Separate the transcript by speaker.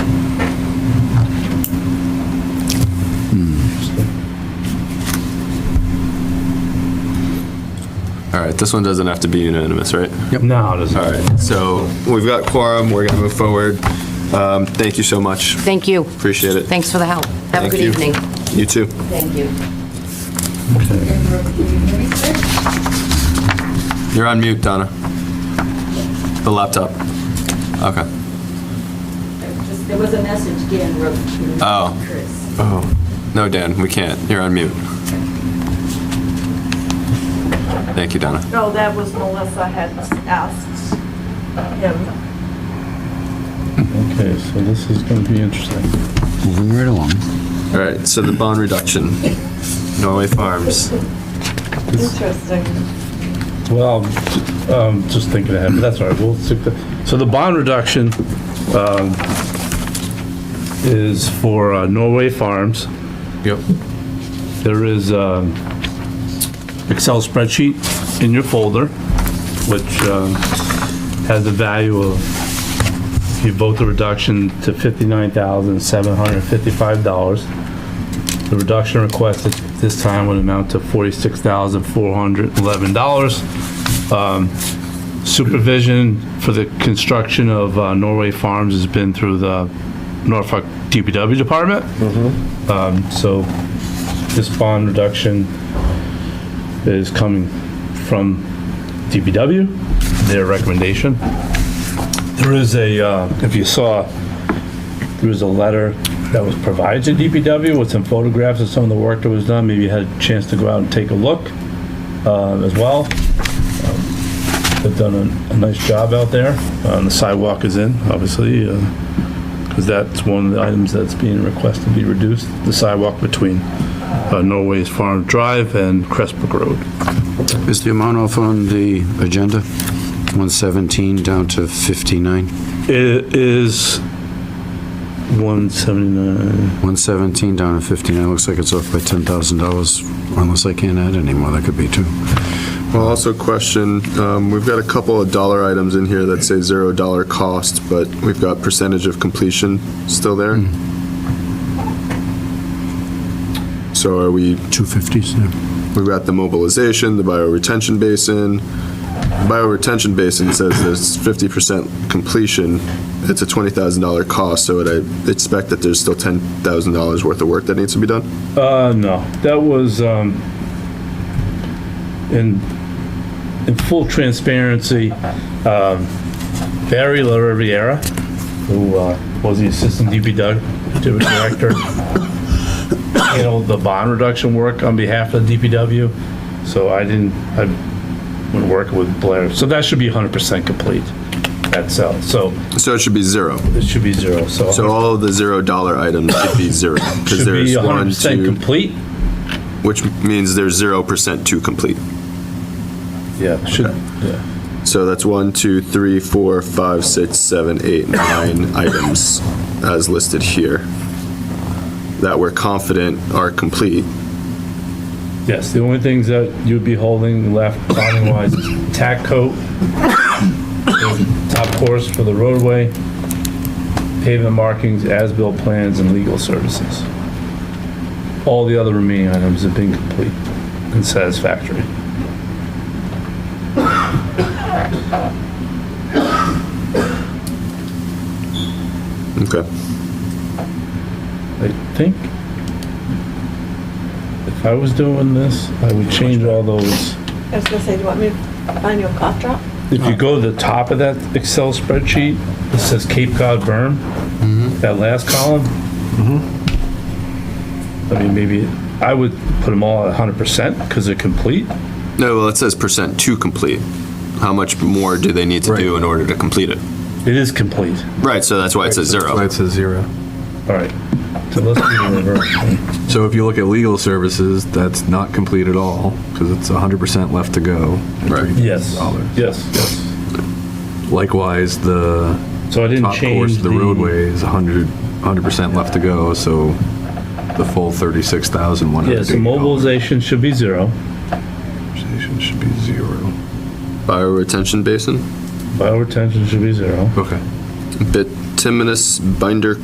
Speaker 1: All right, this one doesn't have to be unanimous, right?
Speaker 2: No, it doesn't.
Speaker 1: All right, so we've got quorum, we're going to move forward. Um, Thank you so much,
Speaker 3: Thank you.
Speaker 1: appreciate it.
Speaker 3: Thanks for the help. Have a
Speaker 1: Thank
Speaker 3: good
Speaker 1: you.
Speaker 3: evening.
Speaker 1: You too.
Speaker 3: Thank you.
Speaker 1: You're on mute, Donna. The laptop. Okay.
Speaker 4: Just- There was a message Dan wrote to
Speaker 1: Oh.
Speaker 4: Chris.
Speaker 1: Oh, no, Dan, we can't. You're on mute. Thank you, Donna.
Speaker 5: No, that was Melissa had asked him.
Speaker 6: Okay, so this is going to be interesting.
Speaker 7: Moving right along.
Speaker 1: All right, so the bond reduction, Norway Farms.
Speaker 5: Interesting.
Speaker 6: Well, um, just thinking ahead, but that's all right, we'll stick to, so the bond reduction, um, is for uh, Norway Farms.
Speaker 1: Yep.
Speaker 6: There is, um, Excel spreadsheet in your folder, which, um, has the value of, if you vote the reduction to fifty-nine thousand, seven hundred and fifty-five dollars. The reduction requested this time would amount to forty-six thousand, four hundred, eleven dollars Um, supervision for the construction of uh, Norway Farms has been through the Norfolk DPW department. Um, So this bond reduction is coming from DPW, their recommendation. There is a, uh, if you saw, there was a letter that was provided to DPW with some photographs of some of the work that was done. Maybe you had a chance to go out and take a look uh, as well. Um, They've done a, a nice job out there. Uh, and the sidewalk is in, obviously, because that's one of the items that's being requested to be reduced, the sidewalk between uh, Norway's Farm Drive and Crestbrook Road.
Speaker 7: Is the amount off on the agenda? 117 down to 59?
Speaker 6: It is 179,
Speaker 7: 117 down to 59, looks like it's off by $10,000, unless I can't add any more, that could be two.
Speaker 8: Well, also question, um, we've got a couple of dollar items in here that say zero dollar cost, but we've got percentage of completion still there.
Speaker 6: Hmm.
Speaker 8: So are we,
Speaker 7: 250s, yeah.
Speaker 8: we've got the mobilization, the bioretention basin. Bioretention basin says there's fifty percent completion. It's a twenty thousand dollar cost, so would I expect that there's still ten thousand dollars worth of work that needs to be done?
Speaker 6: uh, no, that was, um, in, in full transparency, um, Barry La Riviera, who uh, was the assistant DPW director, handled the bond reduction work on behalf of the DPW, so I didn't, I went working with Blair, so that should be 100% complete. That's out, so
Speaker 8: So it should be zero.
Speaker 6: it should be zero, so.
Speaker 8: So all of the zero dollar items should be zero. because
Speaker 6: Should be
Speaker 8: there's one,
Speaker 6: 100%
Speaker 8: two,
Speaker 6: complete?
Speaker 8: which means there's zero percent to complete.
Speaker 6: Yeah, should,
Speaker 8: So that's one, two, three, four, five, six, seven, eight, nine items as listed here that we're confident are complete.
Speaker 6: Yes, the only things that you'd be holding left bonding wise, is tack coat, top course for the roadway, pavement markings, as-built plans, and legal services. All the other remaining items have been complete and satisfactory.
Speaker 8: Okay.
Speaker 6: I think if I was doing this, I would change all those.
Speaker 5: I was gonna say, do you want me to find you a cough drop?
Speaker 6: If you go to the top of that Excel spreadsheet, it says Cape Cod berm, that last column. I mean, maybe, I would put them all at 100% because they're complete.
Speaker 1: No, well, it says percent to complete. How much more do they need to do in order to complete it?
Speaker 6: It is complete.
Speaker 1: Right, so that's why it says zero.
Speaker 2: That's a zero.
Speaker 6: All right. So let's do the reverse.
Speaker 2: So if you look at legal services, that's not complete at all, because it's 100% left to go.
Speaker 1: Right.
Speaker 6: Yes,
Speaker 2: Dollars.
Speaker 6: yes, yes.
Speaker 2: Likewise, the
Speaker 6: So I didn't
Speaker 2: top course,
Speaker 6: change
Speaker 2: of the roadway is 100, 100% left to go, so the full 36,100.
Speaker 6: Yeah, so mobilization should be zero.
Speaker 2: Should be zero.
Speaker 8: Bioretention basin,
Speaker 6: Bio retention should be zero.
Speaker 2: Okay.
Speaker 8: bituminous binder